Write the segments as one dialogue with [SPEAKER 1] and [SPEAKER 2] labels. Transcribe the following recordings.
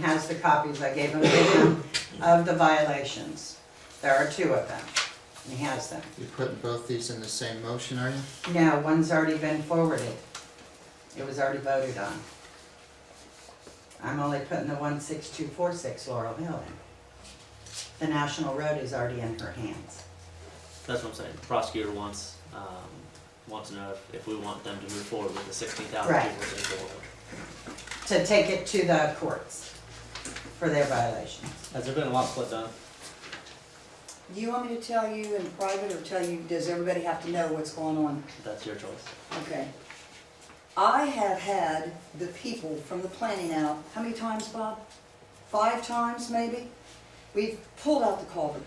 [SPEAKER 1] has the copies, I gave him to him, of the violations. There are two of them, and he has them.
[SPEAKER 2] You're putting both these in the same motion, are you?
[SPEAKER 1] No, one's already been forwarded. It was already voted on. I'm only putting the one six two four six Laurel Hill in. The National Road is already in her hands.
[SPEAKER 3] That's what I'm saying. The prosecutor wants, um, wants to know if, if we want them to move forward with the sixteen thousand
[SPEAKER 1] Right.
[SPEAKER 3] people they forward.
[SPEAKER 1] To take it to the courts for their violations.
[SPEAKER 3] Has there been a lot split done?
[SPEAKER 4] Do you want me to tell you in private or tell you, does everybody have to know what's going on?
[SPEAKER 3] That's your choice.
[SPEAKER 4] Okay. I have had the people from the planning out, how many times, Bob? Five times, maybe? We've pulled out the culvert.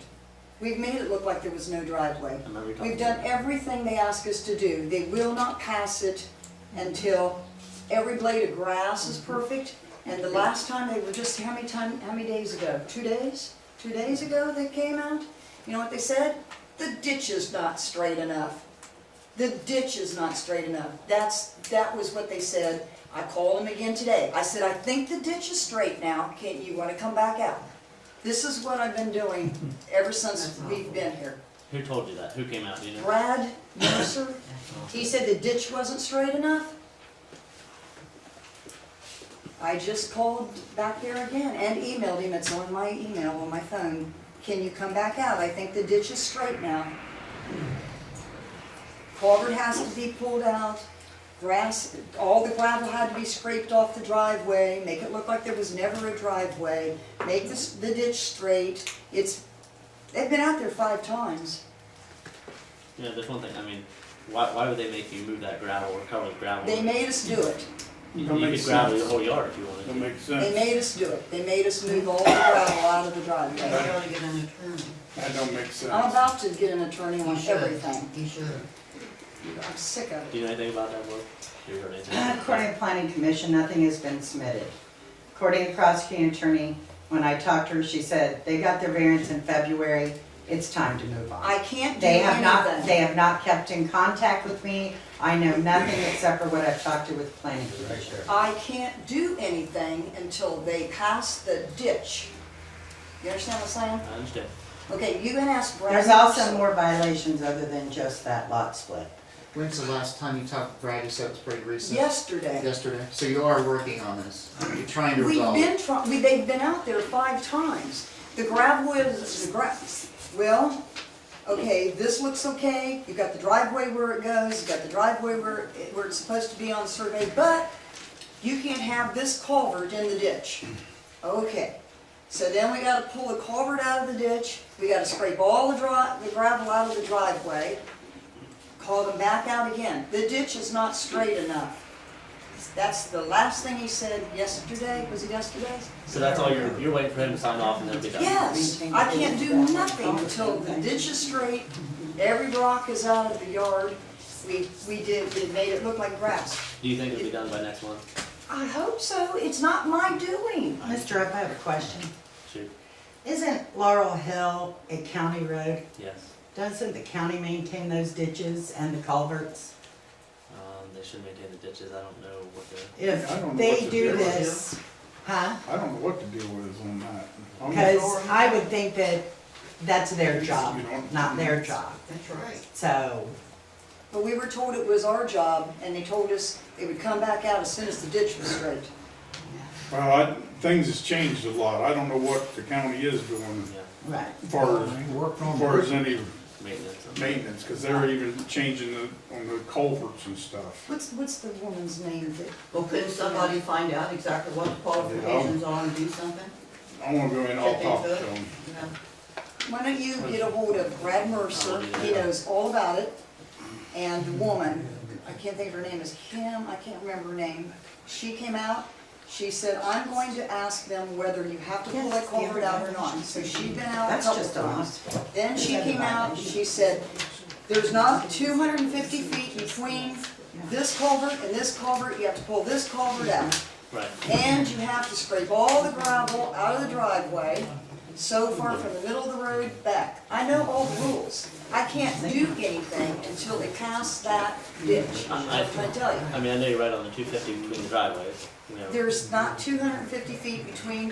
[SPEAKER 4] We've made it look like there was no driveway.
[SPEAKER 3] I remember you talking
[SPEAKER 4] We've done
[SPEAKER 3] about it.
[SPEAKER 4] everything they ask us to do. They will not pass it until every blade of grass is perfect. And the last time, they were just, how many time, how many days ago? Two days? Two days ago they came out? You know what they said? The ditch is not straight enough. The ditch is not straight enough. That's, that was what they said. I called them again today. I said, I think the ditch is straight now. Can, you wanna come back out? This is what I've been doing ever since
[SPEAKER 1] That's
[SPEAKER 4] we've
[SPEAKER 1] awful.
[SPEAKER 4] been here.
[SPEAKER 3] Who told you that? Who came out, do you know?
[SPEAKER 4] Brad Mercer, he said the ditch wasn't straight enough. I just called back there again and emailed him, it's on my email, on my phone, can you come back out? I think the ditch is straight now. Culvert has to be pulled out, grass, all the gravel had to be scraped off the driveway, make it look like there was never a driveway, make this, the ditch straight, it's, they've been out there five times.
[SPEAKER 3] You know, there's one thing, I mean, why, why would they make you move that gravel or cover the gravel?
[SPEAKER 4] They made us do it.
[SPEAKER 3] You
[SPEAKER 5] Don't
[SPEAKER 3] you
[SPEAKER 5] make
[SPEAKER 3] could gravel
[SPEAKER 5] sense.
[SPEAKER 3] the whole yard if you
[SPEAKER 5] Don't
[SPEAKER 3] wanted
[SPEAKER 5] make
[SPEAKER 4] They
[SPEAKER 5] sense.
[SPEAKER 4] made us do it. They made us move all the gravel out of the driveway.
[SPEAKER 5] That
[SPEAKER 1] get an attorney.
[SPEAKER 5] that don't make
[SPEAKER 4] I'm
[SPEAKER 5] sense.
[SPEAKER 4] about to get an attorney on everything.
[SPEAKER 1] He should.
[SPEAKER 4] I'm sick of
[SPEAKER 3] to.
[SPEAKER 4] it.
[SPEAKER 3] Do you know anything about that, Will? You heard anything?
[SPEAKER 4] Uh,
[SPEAKER 1] According to planning commission, nothing has been submitted. According to prosecuting attorney, when I talked to her, she said, they got their variance in February, it's time to move
[SPEAKER 4] I
[SPEAKER 1] on.
[SPEAKER 4] can't do
[SPEAKER 1] They have not,
[SPEAKER 4] anything.
[SPEAKER 1] they have not kept in contact with me, I know nothing except for what I've talked to with planning commission.
[SPEAKER 4] I can't do anything until they pass the ditch. You understand what I'm
[SPEAKER 3] I understand.
[SPEAKER 4] saying? Okay, you can ask Brad.
[SPEAKER 1] There's also
[SPEAKER 4] Marshall.
[SPEAKER 1] more violations other than just that lot split.
[SPEAKER 2] When's the last time you talked to Brad? You said it was pretty recent.
[SPEAKER 4] Yesterday.
[SPEAKER 2] Yesterday? So you are working on this. You're trying to
[SPEAKER 4] We've
[SPEAKER 2] resolve
[SPEAKER 4] been
[SPEAKER 2] it.
[SPEAKER 4] trying, we, they've been out there five times. The gravel is, the grass, well, okay, this looks okay, you've got the driveway where it goes, you've got the driveway where, it- where it's supposed to be on survey, but you can't have this culvert in the ditch. Okay, so then we gotta pull the culvert out of the ditch, we gotta scrape all the dri, the gravel out of the driveway, call them back out again. The ditch is not straight enough. That's the last thing he said yesterday, was it yesterday?
[SPEAKER 3] So that's all you're, you're waiting for him to sign off and then it'll be done?
[SPEAKER 4] Yes, I can't do nothing until the ditch is straight, every rock is out of the yard. We, we did, we made it look like grass.
[SPEAKER 3] Do you think it'll be done by next month?
[SPEAKER 4] I hope so, it's not my doing.
[SPEAKER 1] Mr. Up, I have a question.
[SPEAKER 3] Shoot,
[SPEAKER 1] Isn't Laurel Hill a county road?
[SPEAKER 3] yes.
[SPEAKER 1] Doesn't the county maintain those ditches and the culverts?
[SPEAKER 3] Um, they should maintain the ditches. I don't know what the
[SPEAKER 1] If
[SPEAKER 5] I don't know what
[SPEAKER 1] they
[SPEAKER 5] to
[SPEAKER 1] do
[SPEAKER 5] do.
[SPEAKER 1] this, huh?
[SPEAKER 5] I don't know what the deal is on that. I'm
[SPEAKER 1] Because
[SPEAKER 5] sorry.
[SPEAKER 1] I would think that that's their
[SPEAKER 5] You
[SPEAKER 1] job,
[SPEAKER 5] don't-
[SPEAKER 1] not their job. That's right. So,
[SPEAKER 4] But we were told it was our job, and they told us they would come back out as soon as the ditch was straight.
[SPEAKER 5] Well, I, things has changed a lot. I don't know what the county is doing
[SPEAKER 3] yeah,
[SPEAKER 1] right,
[SPEAKER 5] as far as, as far as any
[SPEAKER 3] maintenance. of-
[SPEAKER 5] maintenance, because they're even changing the, on the culverts and stuff.
[SPEAKER 4] What's, what's the woman's name that?
[SPEAKER 6] Well, couldn't somebody find out exactly what the qualifications are and do something?
[SPEAKER 5] I wanna go in, I'll talk to them.
[SPEAKER 6] You know?
[SPEAKER 4] Why don't you get a hold of Brad Mercer, he knows all about it, and the woman, I can't think of her name, is Kim, I can't remember her name. She came out, she said, I'm going to ask them whether you have to pull that culvert out or not, so she'd been out a
[SPEAKER 1] that's
[SPEAKER 4] couple
[SPEAKER 1] just a
[SPEAKER 4] times.
[SPEAKER 1] hospital.
[SPEAKER 4] Then she came out, she said, there's not two hundred and fifty feet between this culvert and this culvert, you have to pull this culvert out.
[SPEAKER 3] Right.
[SPEAKER 4] And you have to scrape all the gravel out of the driveway so far from the middle of the road back. I know all the rules. I can't do anything until they pass that ditch. That's what I tell you.
[SPEAKER 3] I mean, I know you're right on the two fifty between the driveways, you know.
[SPEAKER 4] There's not two hundred and fifty feet between